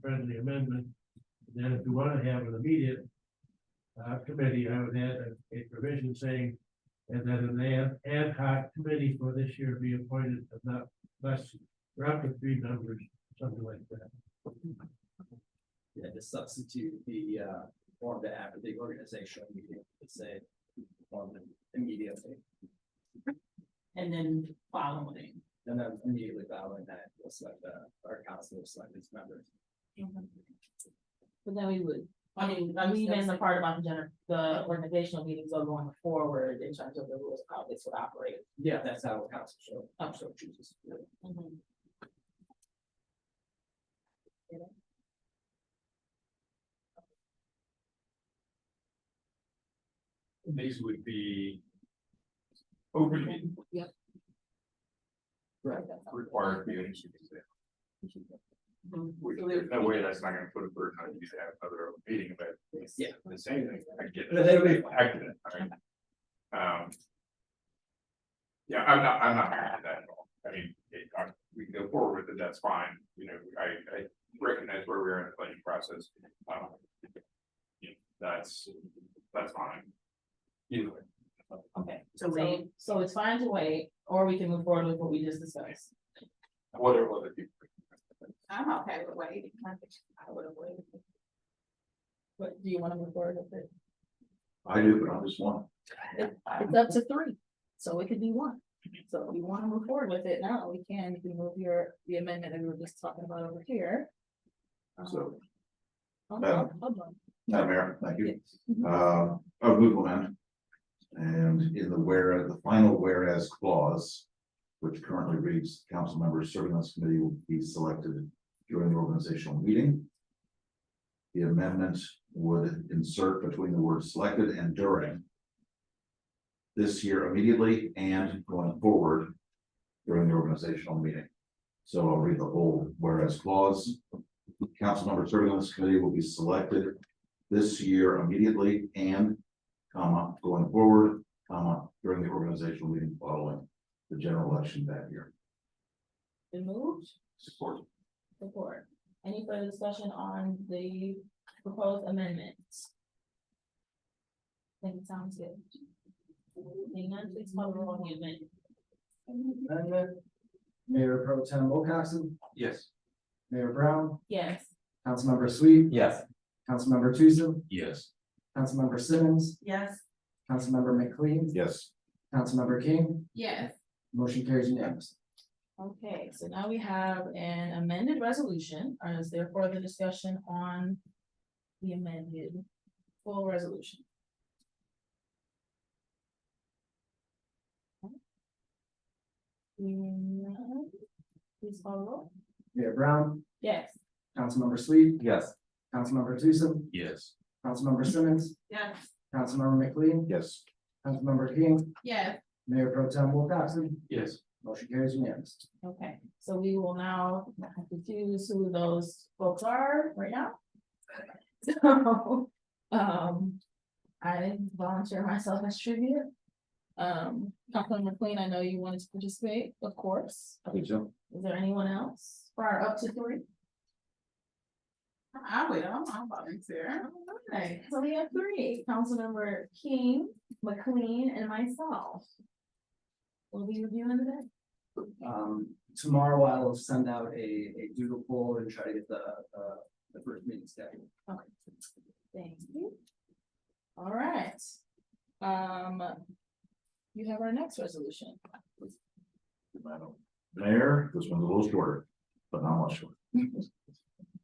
friendly amendment. Then if you wanna have an immediate. Uh, committee, I would add a, a provision saying. And that an ad, ad hoc committee for this year be appointed of not less, we're up to three members, something like that. Yeah, to substitute the, uh, form to have the organization, you can say, form immediately. and then following. And then immediately following that, we'll select, uh, our council will select its members. But then we would, I mean, I mean, that's the part about the gener, the organizational meetings are going forward in terms of the rules, of how this would operate. Yeah, that's how council show, um, so chooses. Mm-hmm. These would be. Open meeting Right. required meetings. Mhm. Which, there's no way that's not gonna put a burden on you to have another meeting, but. it's Yeah. The same thing, I get. No, that'll be it. I get it, I mean, Um. Yeah, I'm not, I'm not mad at that at all, I mean, it, I, we can go forward with it, that's fine, you know, I, I recognize where we are in the planning process, um. you know, That's, that's fine. Either way. Okay, so, so it's fine to wait, or we can move forward with what we just discussed. Whatever, whether you. I'm okay with waiting. I would have waited. But do you wanna move forward with it? I do, but I'm just one. It's up to three, so it could be one. So if you wanna move forward with it now, we can, if we move your, the amendment that we were just talking about over here. Um, So- um, Hold on, hold on. Madam Mayor, thank you. Uh, of Newfoundland. And in the where, the final whereas clause, which currently reads, council members serving on this committee will be selected during the organizational meeting. The amendment would insert between the words selected and during. This year immediately and going forward during the organizational meeting. So I'll read the whole whereas clause. Council members serving on this committee will be selected this year immediately and, comma, going forward, comma, during the organizational meeting following the general election that year. Been moved, Support. support. Any further discussion on the proposed amendments? Think it sounds good. Seeing none, please call the roll on the amendment. Amendment. Mayor Pro Tem Wilcoxen, Yes. Mayor Brown, Yes, Councilmember Sweet, Yes. Councilmember Tucson, Yes. Councilmember Simmons, yes. Councilmember McLean, Yes. Councilmember King, Yes. motion carries unanimously. Okay, so now we have an amended resolution, Uh, is there further discussion on the amended full resolution? Mm, Please follow. Mayor Brown, Yes. Councilmember Sweet, Yes. Councilmember Tucson, Yes. Councilmember Simmons, Yes. Councilmember McLean, Yes. Councilmember King, Yes. Mayor Pro Tem Wilcoxen, Yes. motion carries unanimously. Okay, so we will now have to choose who those folks are right now. So, um, I didn't volunteer myself as tribute. Um, Councilman McLean, I know you wanted to participate, of course. I think so. Is there anyone else prior up to three? I will, I'll volunteer. So we have three, Councilmember King, McLean, and myself. Will be reviewing the day. Um, tomorrow I will send out a, a doodle poll and try to get the, uh, the first meeting scheduled. Okay, thank you. All right, um, you have our next resolution. Madam Mayor, this one's a little shorter, but not much shorter.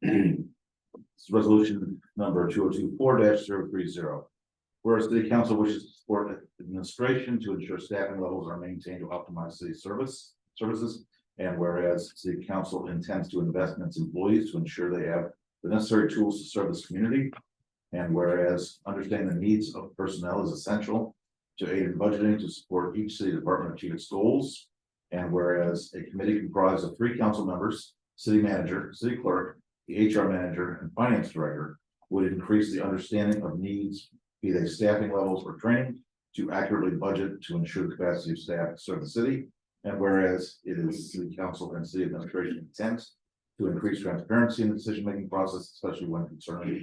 It's resolution number two oh two four 30 Whereas the city council wishes to support administration to ensure staffing levels are maintained to optimize city service, services. And whereas city council intends to invest in its employees to ensure they have the necessary tools to serve this community. And whereas understanding the needs of personnel is essential to aid in budgeting to support each city department achieve its goals. And whereas a committee comprised of three council members, city manager, city clerk, the HR manager, and finance director would increase the understanding of needs, be they staffing levels or training, to accurately budget to ensure the capacity of staff to serve the city. And whereas it is city council and city administration intent to increase transparency in the decision-making process, especially when concerning